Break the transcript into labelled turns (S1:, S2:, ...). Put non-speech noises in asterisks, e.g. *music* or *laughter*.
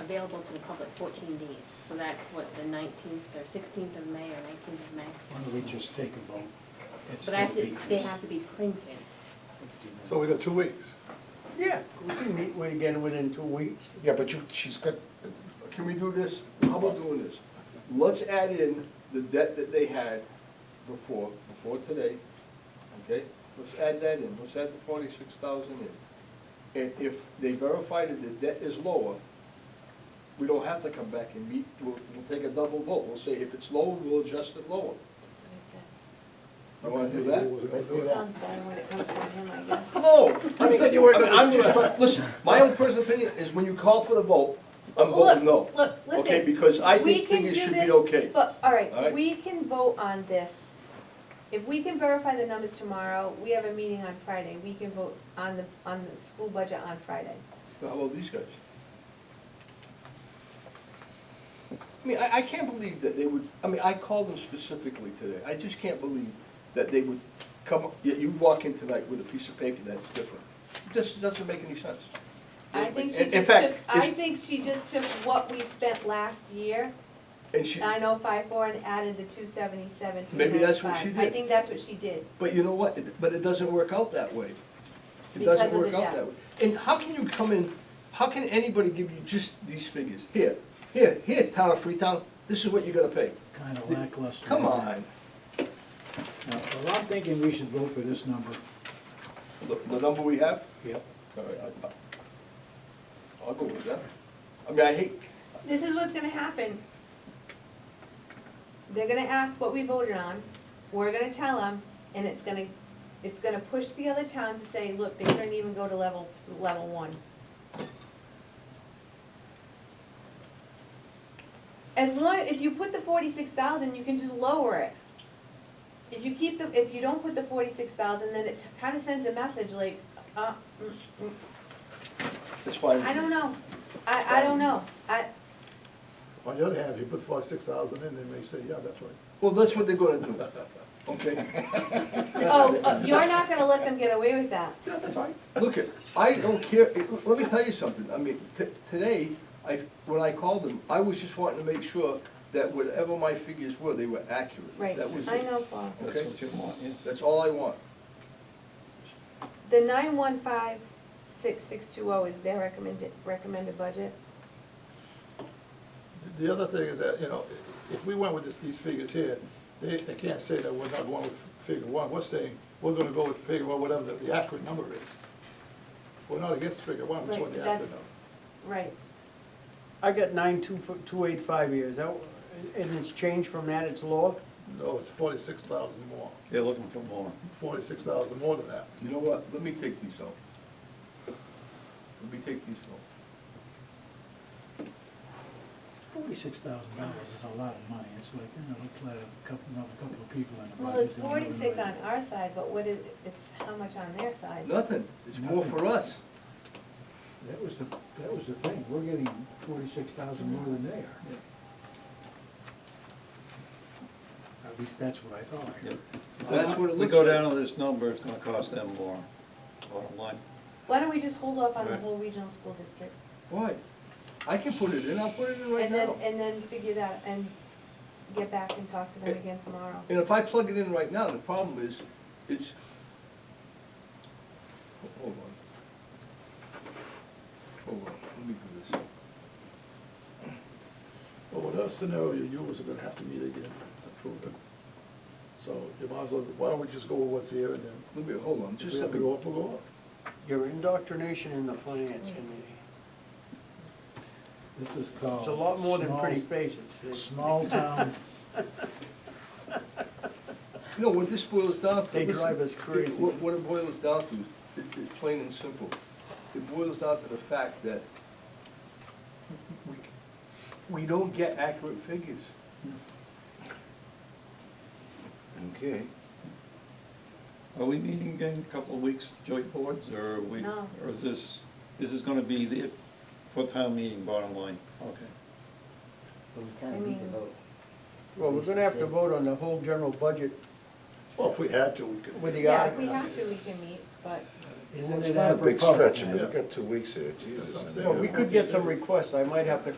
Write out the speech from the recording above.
S1: available to the public fourteen days. So that's what, the nineteenth or sixteenth of May or nineteenth of May.
S2: Why don't we just take a vote? It's
S1: But I have
S2: still
S1: to, they
S2: decreased.
S1: have to be printed.
S2: Let's do that.
S3: So we got two weeks.
S4: Yeah, we can meet with- again within two weeks.
S3: Yeah, but you, she's got,
S5: Can we do this? How about doing this? Let's add in the debt that they had before, before today, okay? Let's add that in, let's add the forty-six thousand in. And if they verify that the debt is lower, we don't have to come back and meet, we'll, we'll take a double vote. We'll say if it's lower, we'll adjust it lower. You wanna do that?
S3: let's do that.
S6: Sounds better when it comes from him, I guess.
S5: No, I
S3: You
S5: mean,
S3: said you weren't
S5: I mean, I'm
S3: gonna-
S5: just, trying- listen, my own personal opinion is when you call for the vote, I'm
S6: Look,
S5: voting no.
S6: Look,
S5: Okay,
S6: listen,
S5: because I
S6: we
S5: think
S6: can
S5: things
S6: do
S5: should be
S6: this,
S5: okay.
S6: but, all
S5: All
S6: right,
S5: right?
S6: we can vote on this. If we can verify the numbers tomorrow, we have a meeting on Friday, we can vote on the, on the school budget on Friday.
S5: How about these guys? I mean, I, I can't believe that they would, I mean, I called them specifically today. I just can't believe that they would come, yet you walk in tonight with a piece of paper that's different. This doesn't make any sense.
S6: I
S5: Doesn't
S6: think
S5: make-
S6: she
S5: in- in
S6: just
S5: fact,
S6: took, I
S5: it's-
S6: think she just took what we spent last year,
S5: And she,
S6: nine oh five four, and added the two seventy-seven, three ninety-five.
S5: Maybe that's what she
S6: I
S5: did.
S6: think that's what she did.
S5: but you know what? It- But it doesn't work out that way. It
S6: Because
S5: doesn't
S6: of the
S5: work out
S6: debt.
S5: that way. And how can you come in, how can anybody give you just these figures? Here, here, here, town of Freetown, this is what you're gonna pay.
S2: Kind of lackluster.
S5: Come on.
S2: Now, Well, I'm thinking we should vote for this number.
S5: The, the number we have?
S2: Yep.
S5: All right, I- I- I'll go with that. I mean, I hate,
S6: This is what's gonna happen. They're gonna ask what we voted on, we're gonna tell them, and it's gonna, it's gonna push the other towns to say, look, they couldn't even go to level, level one. As long, if you put the forty-six thousand, you can just lower it. If you keep the, if you don't put the forty-six thousand, then it kinda sends a message like, uh, mm, mm,
S5: it's fine.
S6: I don't know, I, I don't know, I,
S3: On the other hand, if you put five, six thousand in, they may say, yeah, that's right.
S5: Well, that's what they're gonna do, okay?
S6: Oh, uh, you're not gonna let them get away with that.
S5: Yeah, that's right. Look, it, I don't care, it- let me tell you something, I mean, t- today, I, when I called them, I was just wanting to make sure that whatever my figures were, they were accurate.
S6: Right,
S5: That was
S6: I
S5: it.
S6: know, Paul.
S2: That's
S5: Okay.
S2: what you want, yeah.
S5: That's all I want.
S6: The nine one five six six two oh is their recommended, recommended budget.
S3: The other thing is that, you know, if we went with this, these figures here, they, they can't say that we're not going with figure one, we're saying, we're gonna go with figure one, whatever the, the accurate number is. We're not against figure one, we just
S6: Right,
S3: want the
S6: that's-
S3: accurate number.
S6: Right.
S4: I got nine two, f- two eight five years, that, and it's changed from that, it's lower?
S3: No, it's forty-six thousand more,
S7: They're looking for more.
S3: forty-six thousand more than that.
S5: You know what, let me take these out. Let me take these out.
S2: Forty-six thousand dollars is a lot of money. It's like, you know, it's like a couple, another couple of people in the budget.
S6: Well, it's
S2: that don't really
S6: forty-six on
S2: like
S6: our side, but what is, it's how much on their side?
S5: Nothing, it's more for us.
S2: it. That was the, that was the thing. We're getting forty-six thousand more than they are. At least that's what I thought. I heard.
S5: That's what it
S7: We
S5: looks
S7: go
S5: like.
S7: down to this number, it's gonna cost them more, bottom line.
S6: Why don't we just hold off on the
S7: Right.
S6: whole regional school district?
S5: Why? I can put it in, I'll put it in right
S6: And then,
S5: now.
S6: and then figure that, and get back and talk to them again tomorrow.
S5: And if I plug it in right now, the problem is, it's. Hold on. Hold on, let me do this.
S3: But whatever scenario you use, we're gonna have to meet again to prove it. So you might as well, why don't we just go with what's here and then,
S5: Let me, hold on,
S3: if
S5: just
S3: we have
S5: let
S3: to
S5: me.
S3: go up, we'll go up.
S4: Your indoctrination in the finance committee,
S2: This is called.
S4: it's a lot more than
S2: Oh, small-
S4: pretty faces. It's-
S8: *laughs*
S2: Small town,
S5: You know, what this boils down to.
S4: They
S5: listen,
S4: drive us crazy.
S5: What, what it boils down to, it, it's plain and simple. It boils down to the fact that we, we don't get accurate figures.
S7: Okay. Are we meeting again in a couple of weeks, joint boards, or are we,
S6: No.
S7: or is this, this is gonna be the, for town meeting, bottom line? Okay.
S9: But we kind of need to vote.
S4: Well, we're gonna have to vote on the whole general budget
S3: Well, if we had to, we could.
S4: with the
S6: Yeah, if
S4: article.
S6: we have to, we can meet, but
S2: isn't it
S8: Well, It's not a big
S2: apropos?
S8: stretch, I mean,
S3: Yeah.
S8: we've got two weeks here, Jesus.
S3: That's what I'm
S8: I mean,
S3: saying.
S4: Well, we could get some requests, I might have to